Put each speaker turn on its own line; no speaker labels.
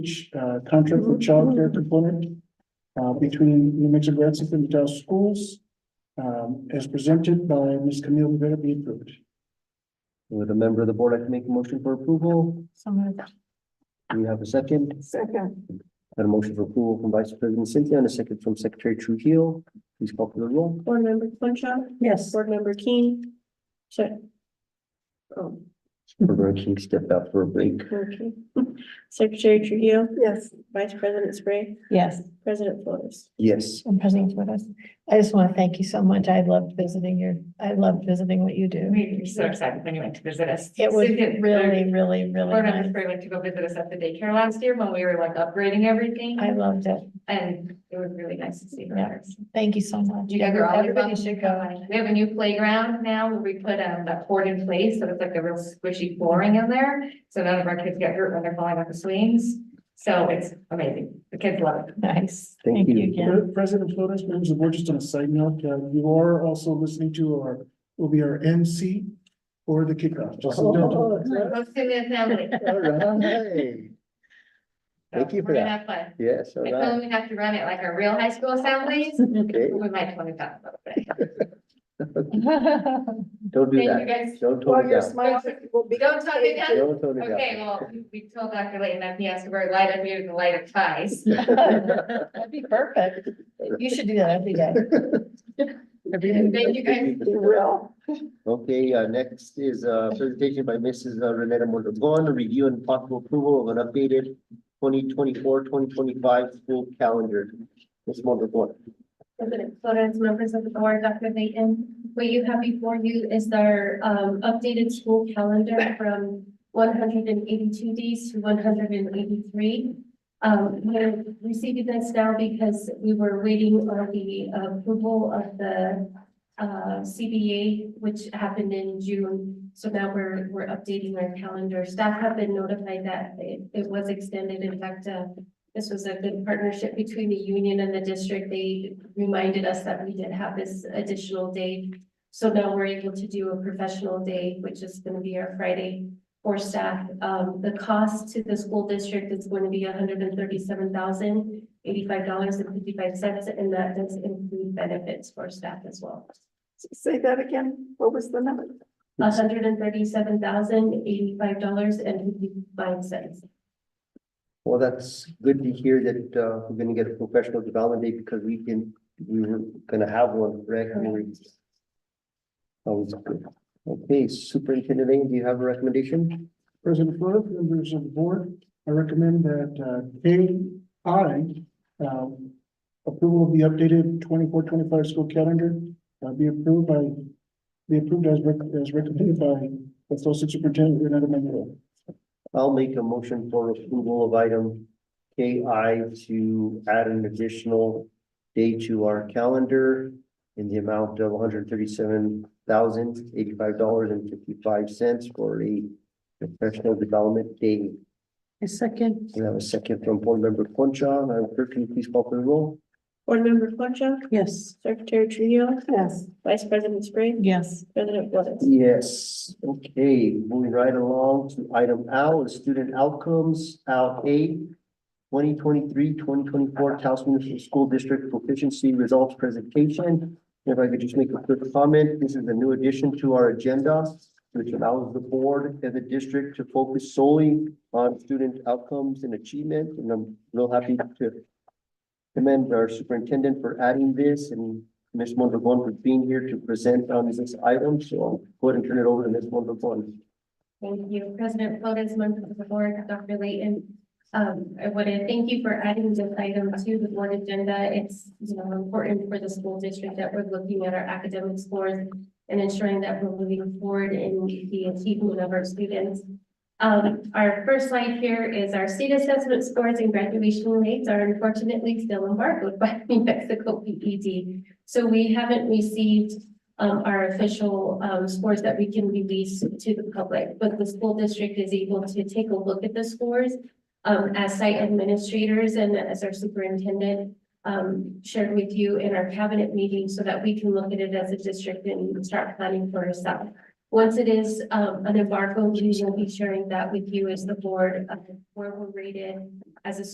uh, contract for childcare component uh, between New Mexico Grants and the Dallas schools um, as presented by Ms. Camille Rivera be approved.
Would a member of the board like to make a motion for approval?
So moved.
Do we have a second?
Second.
Got a motion for approval from Vice President Cynthia and a second from Secretary Trujillo. Please call for the roll.
Board Member Winchell?
Yes.
Board Member Keen? Sorry. Oh,
Reverend King stepped out for a break.
okay. Secretary Trujillo,
Yes.
Vice President Spray,
Yes,
President Flores.
Yes,
and President Flores. I just want to thank you so much. I loved visiting your, I loved visiting what you do.
We were so excited when you went to visit us.
It was
Cynthia,
really, really, really
Lauren and
nice.
Spray went to go visit us at the daycare last year when we were like upgrading everything
I loved it.
and it was really nice to see
Yeah.
her.
Thank you so much.
You guys are all
Everybody
welcome.
should go.
We have a new playground now where we put um that board in place, so it's like a real squishy flooring in there. So none of our kids get hurt when they're falling off the swings. So it's amazing. The kids love it.
Nice.
Thank you.
again.
President Flores, members of the board, just on a side note, uh, you are also listening to our, will be our MC for the kickoff. Just
Oh,
so you
oh,
know.
Most in the family.
All right. Thank you for
We're gonna
that.
have fun.
Yes, all
I
right.
feel we have to run it like our real high school assemblies.
Okay,
We might want to talk about that.
don't do
Thank you,
that.
guys.
Don't tone it down.
We don't talk it down.
Don't tone
Okay,
it
well, we- we told Dr. Layton that he has to wear light up here, the light of ties.
down.
That'd be perfect. You should do that every day.
Thank you guys.
Okay, uh, next is a presentation by Mrs. Renetta Mondragon, review and possible approval of an updated 2024-2025 school calendar. Ms. Mondragon.
President Flores, members of the board, Dr. Layton, what you have before you is our um updated school calendar from one hundred and eighty-two days to one hundred and eighty-three. Um, we're receiving this now because we were waiting on the approval of the uh CBA, which happened in June. So now we're we're updating our calendar. Staff have been notified that it it was extended. In fact, uh this was a good partnership between the union and the district. They reminded us that we did have this additional day. So now we're able to do a professional day, which is gonna be our Friday for staff. Um, the cost to the school district is going to be hundred and thirty-seven thousand eighty-five dollars and fifty-five cents, and that does include benefits for staff as well.
Say that again, what was the number?
hundred and thirty-seven thousand eighty-five dollars and fifty-five cents.
Well, that's good to hear that, uh, we're gonna get a professional development day because we can, we were gonna have one, correct? We were- Always good. Okay, Superintendent Lane, do you have a recommendation?
President Flores, members of the board, I recommend that uh, KI um, approval of the updated 24-25 school calendar uh, be approved by, be approved as rec- as recommended by the Associate Superintendent Renata Manuel.
I'll make a motion for approval of item KI to add an additional day to our calendar in the amount of one hundred thirty-seven thousand eighty-five dollars and fifty-five cents for a professional development day.
A second.
We have a second from board member Concha. Madam Clerk, can you please call for the roll?
Board Member Winchell,
Yes.
Secretary Trujillo,
Yes.
Vice President Spray,
Yes.
President Flores.
Yes, okay, moving right along to item L, is student outcomes, out A. 2023-2024 Taos Municipal School District Proficiency Results Presentation. If I could just make a quick comment, this is a new addition to our agenda, which allows the board and the district to focus solely on student outcomes and achievement, and I'm real happy to commend our superintendent for adding this and Ms. Mondragon for being here to present on this item, so I'll go ahead and turn it over to Ms. Mondragon.
Thank you, President Flores, members of the board, Dr. Layton. Um, I want to thank you for adding this item to the board agenda. It's, you know, important for the school district that we're looking at our academic scores and ensuring that we're moving forward in the achievement of our students. Um, our first slide here is our state assessment scores and graduation rates are unfortunately still embargoed by New Mexico PED. So we haven't received um, our official, um, scores that we can release to the public, but the school district is able to take a look at the scores. um, as site administrators and as our superintendent, um, shared with you in our cabinet meeting so that we can look at it as a district and start planning for ourselves. Once it is, um, an embargo, we will be sharing that with you as the board, uh, where we're rated, as a